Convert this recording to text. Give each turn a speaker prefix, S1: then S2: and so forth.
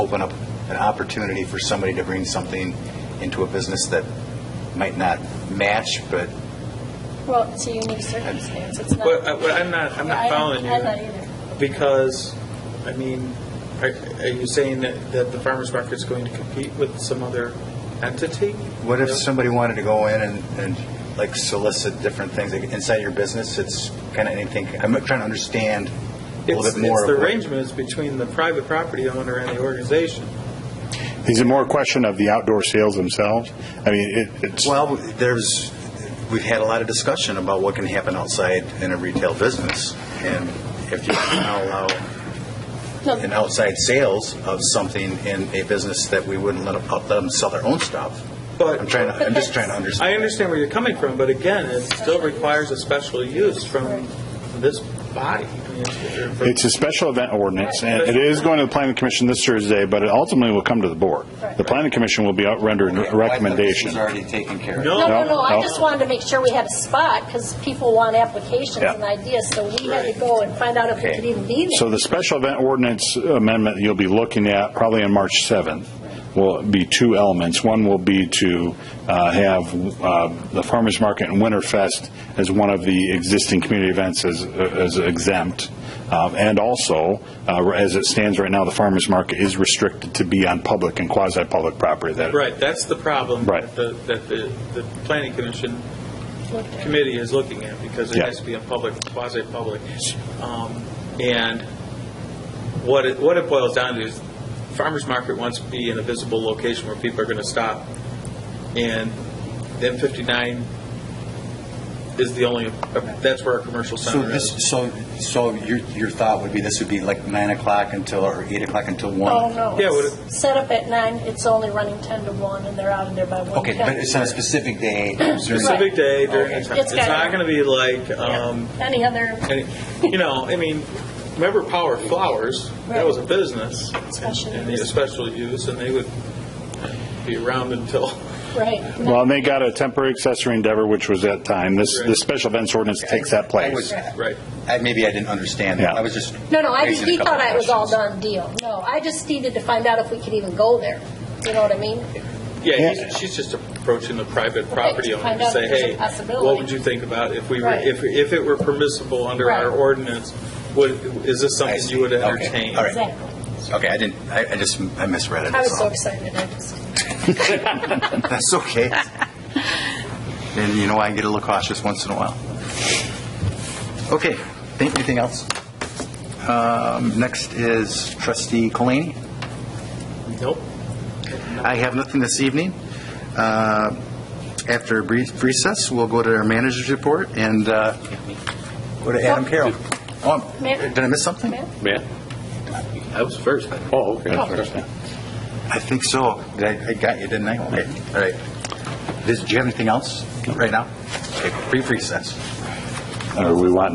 S1: open up an opportunity for somebody to bring something into a business that might not match, but
S2: Well, it's a unique circumstance, it's not.
S3: Well, I- well, I'm not, I'm
S2: Yeah,
S3: not
S2: I don't-
S3: following you.
S2: I'm not either.
S3: Because, I mean, are, are you saying that, that the farmer's market's going to compete with some other entity?
S1: what if
S3: Yeah.
S1: somebody wanted to go in and, and like solicit different things like, inside your business? It's kind of anything, I'm trying to understand a little
S3: It's,
S1: bit more
S3: it's
S1: of
S3: the
S1: what-
S3: arrangement is between the private property owner and the organization.
S4: Is it more a question of the outdoor sales themselves? I mean, it- it's,
S1: Well, there's, we've had a lot of discussion about what can happen outside in a retail business, and if you now allow an outside sales of something in a business that we wouldn't let them, let them sell their own stuff.
S3: But-
S1: I'm trying, to- I'm just trying to
S3: I
S1: understand.
S3: understand where you're coming from, but again, it still requires a special use from this body. I mean, it's- for-
S4: it's a special event ordinance, and it is going to the planning commission this Thursday, but it ultimately will come to the board. The planning commission will be out rendering a recommendation.
S1: already taken care of.
S2: No, no,
S4: No,
S2: no, I
S4: no.
S2: just wanted to make sure we had a spot, because people want applications
S4: Yeah.
S2: and ideas, so we had to go and find out if we could even be
S4: So
S2: there.
S4: the special event ordinance amendment you'll be looking at probably on March 7th will be two elements. One will be to uh, have uh, the farmers market and Winterfest as one of the existing community events as as exempt. Um, And also, uh, as it stands right now, the farmers market is restricted to be on public and quasi-public property. That-
S3: Right, that's the problem.
S4: Right.
S3: That the, that the, the planning commission committee is looking at, because it
S4: Yeah.
S3: has to be a public, quasi-public. Um, And what it, what it boils down to is, farmer's market wants to be in a visible location where people are going to stop, and then 59 is the only, that's where our commercial
S1: So
S3: center is.
S1: this, so, so your, your thought would be this would be like nine o'clock until, or eight o'clock until one?
S2: Oh, no.
S3: Yeah, would
S2: it's Set up at nine, it's only running ten to one, and they're out of there by one.
S1: Okay, but it's on a specific day.
S3: Specific day during the time.
S2: It's
S3: It's not
S2: gotta-
S3: going to be like, um,
S2: Any other
S3: And, you know, I mean, remember Power Flowers? That was a business. and-
S2: Special
S3: And they
S2: use.
S3: had special use, and they would be around until,
S2: Right.
S4: Well, and they got a temporary accessory endeavor, which was that time. This,
S3: Right.
S4: this special events ordinance takes that
S1: I was-
S4: place.
S3: right.
S1: I- Maybe I didn't understand that.
S4: Yeah.
S1: I was just.
S2: No, no, I just,
S1: raising a
S2: he
S1: couple
S2: thought I was all
S1: questions.
S2: done deal. No, I just needed to find out if we could even go there. You know what I mean?
S3: Yeah, he's- she's just approaching the private property
S2: to
S3: owner
S2: find
S3: to
S2: out
S3: say,
S2: if there's a
S3: hey, what
S2: possibility."
S3: would you think about if we were,
S2: Right.
S3: if, if it were permissible under our
S2: Right.
S3: ordinance? Would, is this
S1: I
S3: something
S1: see.
S3: you would
S1: Okay.
S3: entertain?
S1: All right.
S2: Exactly.
S1: Okay, I didn't, I I just, I misread it.
S2: I was
S1: that's
S2: so
S1: all.
S2: excited, I just.
S1: That's okay. And you know, I get a little cautious once in a while. Okay, think- anything else? Um, Next is trustee Colaney.
S3: Nope.
S1: I have nothing this evening. Uh, After a brief recess, we'll go to our manager's report and uh, go to Adam Carroll. Oh,
S2: Ma'am?
S1: Did I miss something?
S2: Ma'am?
S5: Yeah. I was first. Oh, okay.
S1: I think so. Did I I got you, didn't I? Okay, all right. Does- Do you have anything else right now? Okay, Brief recess.
S4: Or we want